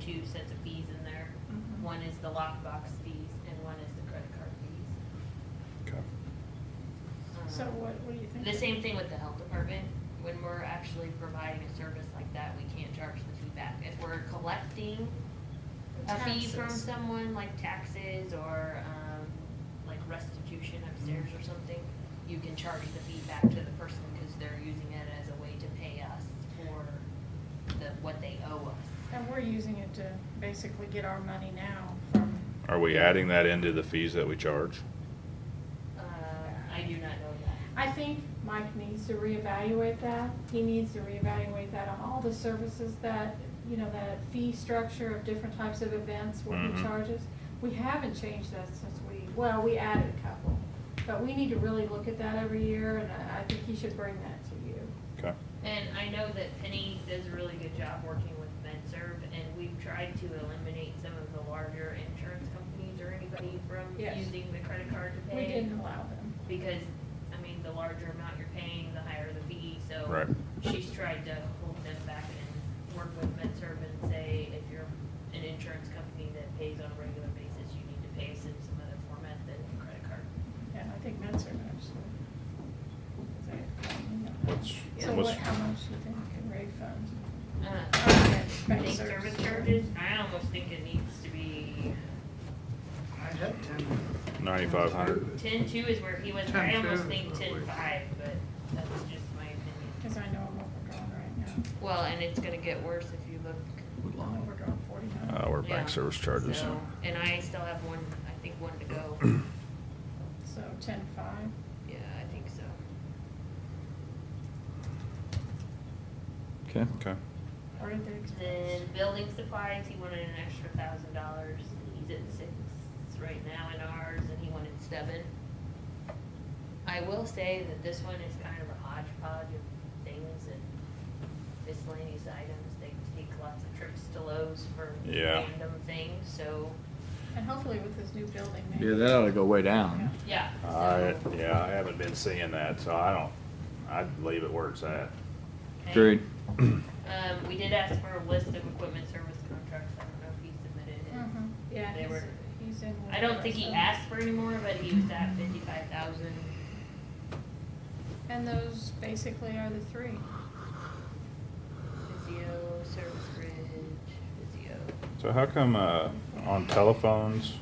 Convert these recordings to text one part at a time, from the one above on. two sets of fees in there. Mhm. One is the lockbox fees and one is the credit card fees. Okay. Um, So what, what do you think? The same thing with the health department. When we're actually providing a service like that, we can't charge the fee back. If we're collecting a fee from Taxes. someone, like taxes or, um, like restitution upstairs Mm-hmm. or something, you can charge the fee back to the person because they're using it as a way to pay us for the, what they owe us. And we're using it to basically get our money now from. Are we adding that into the fees that we charge? Uh, I do not know that. I think Mike needs to reevaluate that. He needs to reevaluate that on all the services that, you know, that fee structure of different types of events, what Mhm. he charges. We haven't changed that since we, well, we added a couple. But we need to really look at that every year, and I I think he should bring that to you. Okay. And I know that Penny does a really good job working with MedServ, and we've tried to eliminate some of the larger insurance companies or anybody from Yes. using the credit card to pay. We didn't allow them. because, I mean, the larger amount you're paying, the higher the fee, so. Right. She's tried to hold them back and work with MedServ and say, if you're an insurance company that pays on a regular basis, you need to pay us in some other format than credit card. Yeah, I think Mets are actually. is that- What's, So what's, what, how much do you think in refund? Uh, Okay, I bank think service charges, I almost think it needs to be, I had ten. ninety-five hundred? ten-two is where he was, I 10-2 almost is think what we- ten-five, but that's just my opinion. Cause I know I'm overdrawn right now. Well, and it's gonna get worse if you look I'm overdrawn forty-nine. Uh, we're Yeah. bank service charges. So, And I still have one, I think one to go. So ten-five. Yeah, I think so. Okay. Okay. Or did they Then expect? building supplies, he wanted an extra thousand dollars. He's at six right now in ours and he wanted seven. I will say that this one is kind of a hodgepodge of things and miscellaneous items. They take lots of trips to Lowe's for Yeah. random things, so, And hopefully with this new building, maybe. Yeah, that ought to go way down. yeah. I, so- yeah, I haven't been seeing that, so I don't, I'd leave it where it's at. Okay. Agreed. Um, we did ask for a list of equipment service contracts, I don't know if he submitted it. Mhm. Yeah, They he's, were- he's in. with I don't think he us. asked for any more, but he was at fifty-five thousand. And those basically are the three. Physio, service bridge, physio. So how come, uh, on telephones,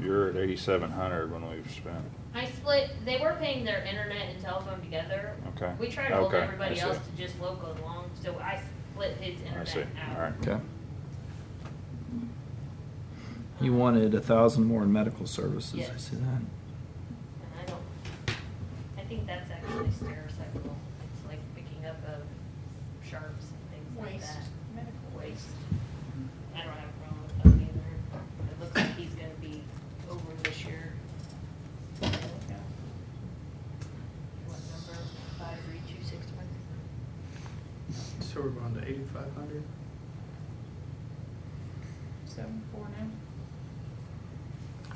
you're at eighty-seven hundred when we've spent? I split, they were paying their internet and telephone together. Okay. We tried to hold Okay, I everybody see. else to just local and long, so I split his I see, internet out. Um, alright. Okay. He wanted a thousand more in medical services. I Yes. see that. And I don't, I think that's actually stericycle, it's like picking up of sharps and things like Waste, that. medical waste. waste. I don't have a problem with that either. It looks like he's gonna be over this year. What Yeah. number? Five, three, two, six, one? So we're going to eighty-five hundred? Seven, four now.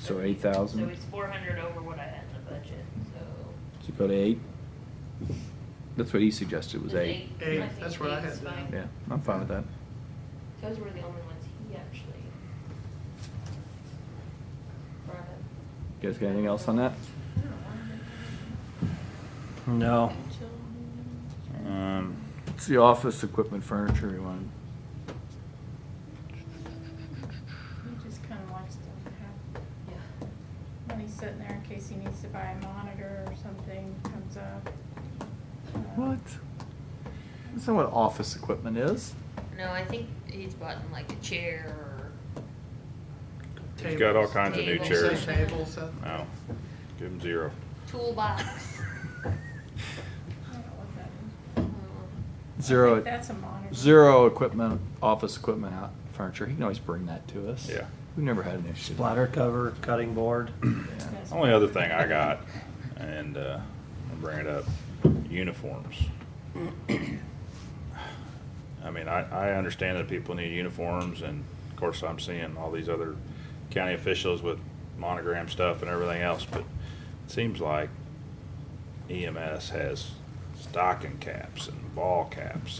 So eight thousand. So he's four hundred over what I had in the budget, so. So go to eight. That's what he suggested was Is eight. Eight, I think that's what I eight's had down. fine. Yeah, I'm fine with that. Those were the only ones he actually brought up. You guys got anything else on that? No. Oh. Uh, Um, It's the office equipment, furniture you wanted. He just kinda likes to Yeah. have money sitting there in case he needs to buy a monitor or something comes up. Uh, What? That's not what office equipment is. No, I think he's bought him like a chair or. he's got all kinds of new Tables. chairs. Tables. Tables, Seth? No, give him zero. toolbox. I don't know what that is. I Zero, think That's a monitor. zero equipment, office equipment, out furniture. He can always bring that to us. Yeah. We've never had an issue. Splatter cover, cutting board. Yeah. That's Only other thing I got, and uh, I'll bring it up, uniforms. I mean, I, I understand that people need uniforms, and of course, I'm seeing all these other county officials with monogram stuff and everything else, but it seems E like EMS has stocking caps and ball caps